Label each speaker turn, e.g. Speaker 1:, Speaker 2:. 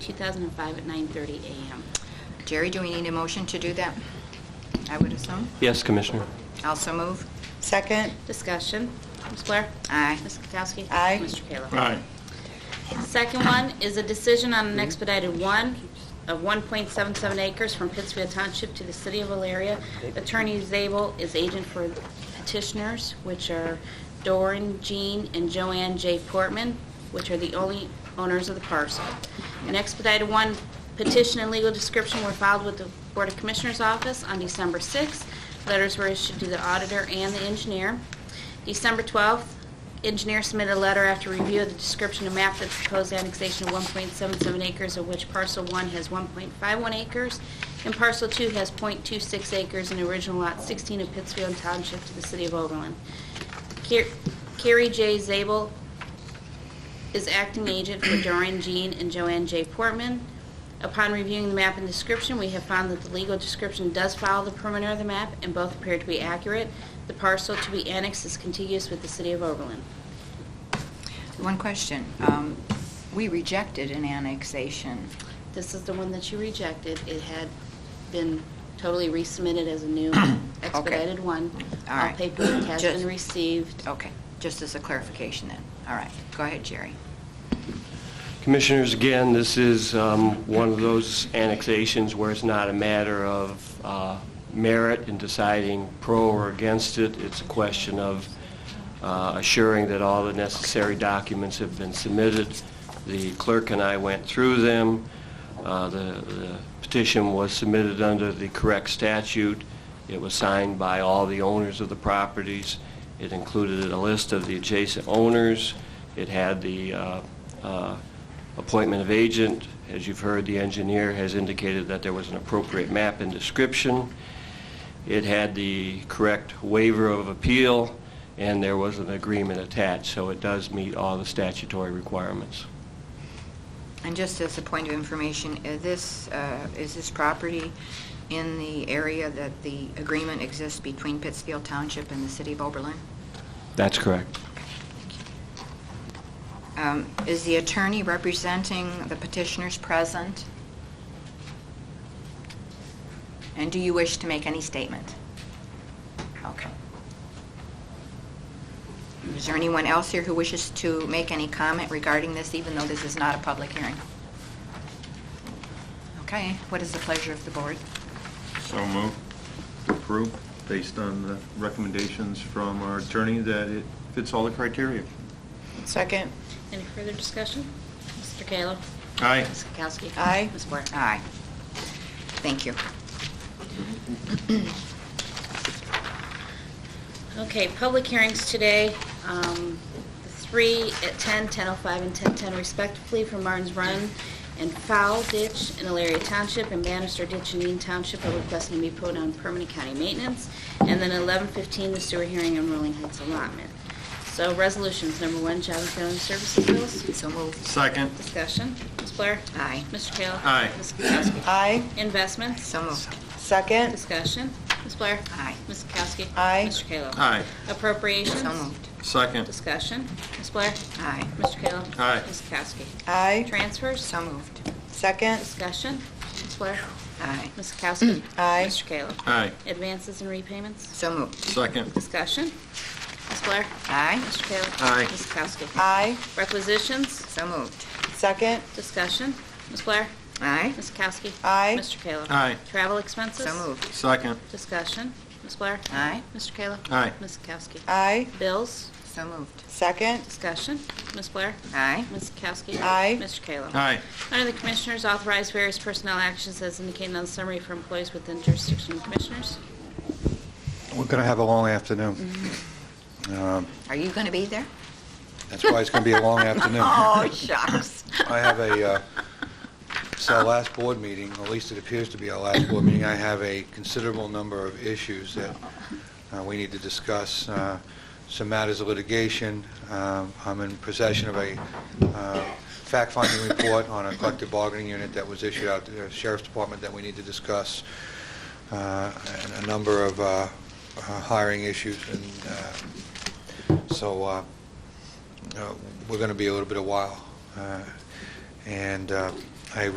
Speaker 1: 2005, at 9:30 a.m.
Speaker 2: Jerry, do we need a motion to do that? I would assume.
Speaker 3: Yes, Commissioner.
Speaker 2: Also move.
Speaker 4: Second,
Speaker 1: Discussion. Ms. Blair?
Speaker 2: Aye.
Speaker 1: Ms. Kukowski?
Speaker 4: Aye.
Speaker 1: Mr. Kayla?
Speaker 5: Aye.
Speaker 1: Second one is a decision on an expedited one of 1.77 acres from Pittsfield Township to the City of Valeria. Attorney Zabel is agent for petitioners, which are Doran Jean and Joanne J. Portman, which are the only owners of the parcel. An expedited one petition and legal description were filed with the Board of Commissioners' office on December 6th. Letters were issued to the auditor and the engineer. December 12th, engineer submitted a letter after review of the description and map that proposed annexation of 1.77 acres, of which parcel 1 has 1.51 acres, and parcel 2 has .26 acres in the original lot 16 of Pittsfield Township to the city of Oberlin. Car- Carrie J. Zabel is acting agent for Doreen Jean and Joanne J. Portman. Upon reviewing the map and description, we have found that the legal description does follow the perimeter of the map, and both appear to be accurate. The parcel to be annexed is contiguous with the city of Oberlin.
Speaker 2: One question. Um, We rejected an annexation.
Speaker 1: This is the one that you rejected. It had been totally resubmitted as a new expedited one.
Speaker 2: All
Speaker 1: All
Speaker 2: right.
Speaker 1: paperwork has
Speaker 2: Just-
Speaker 1: been received.
Speaker 2: Okay, just as a clarification then. All right, go ahead, Jerry.
Speaker 3: Commissioners, again, this is um, one of those annexations where it's not a matter of uh, merit in deciding pro or against it. It's a question of uh, assuring that all the necessary documents have been submitted. The clerk and I went through them. Uh, The the petition was submitted under the correct statute. It was signed by all the owners of the properties. It included a list of the adjacent owners. It had the uh, uh, appointment of agent. As you've heard, the engineer has indicated that there was an appropriate map and description. It had the correct waiver of appeal, and there was an agreement attached, so it does meet all the statutory requirements.
Speaker 2: And just as a point of information, is this, uh, is this property in the area that the agreement exists between Pittsfield Township and the city of Oberlin?
Speaker 3: That's correct.
Speaker 2: Um, Is the attorney representing the petitioners present? And do you wish to make any statement? Okay. Is there anyone else here who wishes to make any comment regarding this, even though this is not a public hearing? Okay, what is the pleasure of the board?
Speaker 5: So move.
Speaker 6: approve based on the recommendations from our attorney that it fits all the criteria.
Speaker 4: second,
Speaker 1: Any further discussion? Mr. Kayla?
Speaker 6: Aye.
Speaker 1: Ms. Kukowski?
Speaker 4: Aye.
Speaker 1: Ms. Blair?
Speaker 2: Aye. Thank you.
Speaker 1: Okay, public hearings today, um, the three at 10, 10:05, and 10:10 respectively for Martin's Run and Fowl Ditch in Elaria Township and Bannister Ditch in Eaton Township are requesting to be put on permanent county maintenance. And then 11:15, the sewer hearing on Rolling Heights allotment. So resolutions, number one, job and family services bills,
Speaker 2: So moved.
Speaker 6: Second.
Speaker 1: discussion. Ms. Blair?
Speaker 2: Aye.
Speaker 1: Mr. Kayla?
Speaker 6: Aye.
Speaker 1: Ms. Kukowski?
Speaker 4: aye,
Speaker 1: Investments?
Speaker 2: So moved.
Speaker 4: second,
Speaker 1: Discussion. Ms. Blair?
Speaker 2: Aye.
Speaker 1: Ms. Kukowski?
Speaker 4: Aye.
Speaker 1: Mr. Kayla?
Speaker 6: Aye.
Speaker 1: Appropriations?
Speaker 2: So moved.
Speaker 6: Second.
Speaker 1: Discussion. Ms. Blair?
Speaker 2: Aye.
Speaker 1: Mr. Kayla?
Speaker 6: Aye.
Speaker 1: Ms. Kowski?
Speaker 4: aye,
Speaker 1: Transfers?
Speaker 2: So moved.
Speaker 4: second,
Speaker 1: Discussion. Ms. Blair?
Speaker 2: Aye.
Speaker 1: Ms. Kowski?
Speaker 2: Mm,
Speaker 4: Aye.
Speaker 1: Mr. Kayla?
Speaker 6: Aye.
Speaker 1: Advances and repayments?
Speaker 2: So moved.
Speaker 6: Second.
Speaker 1: Discussion. Ms. Blair?
Speaker 2: Aye.
Speaker 1: Mr. Kayla?
Speaker 6: Aye.
Speaker 1: Ms. Kowski?
Speaker 4: aye,
Speaker 1: Requisitions?
Speaker 2: So moved.
Speaker 4: second,
Speaker 1: Discussion. Ms. Blair?
Speaker 2: Aye.
Speaker 1: Ms. Kowski?
Speaker 4: Aye.
Speaker 1: Mr. Kayla?
Speaker 6: Aye.
Speaker 1: Travel expenses?
Speaker 2: So moved.
Speaker 6: Second.
Speaker 1: Discussion. Ms. Blair?
Speaker 2: Aye.
Speaker 1: Mr. Kayla?
Speaker 6: Aye.
Speaker 1: Ms. Kowski?
Speaker 4: aye,
Speaker 1: Bills?
Speaker 2: So moved.
Speaker 4: second,
Speaker 1: Discussion. Ms. Blair?
Speaker 2: Aye.
Speaker 1: Ms. Kowski?
Speaker 4: Aye.
Speaker 1: Mr. Kayla?
Speaker 6: Aye.
Speaker 1: Under the Commissioners, authorize various personnel actions as indicated on the summary for employees within jurisdiction of Commissioners.
Speaker 7: We're going to have a long afternoon. Um,
Speaker 2: Are you going to be there?
Speaker 7: That's why it's going to be a long afternoon.
Speaker 2: Oh, shucks.
Speaker 7: I have a, uh, it's our last board meeting, at least it appears to be our last board meeting. I have a considerable number of issues that uh, we need to discuss, uh, some matters of litigation. Um, I'm in possession of a uh, fact-finding report on a collective bargaining unit that was issued out to the Sheriff's Department that we need to discuss, uh, and a number of uh, uh, hiring issues, and uh, so uh, uh, we're going to be a little bit a while. Uh, And uh, I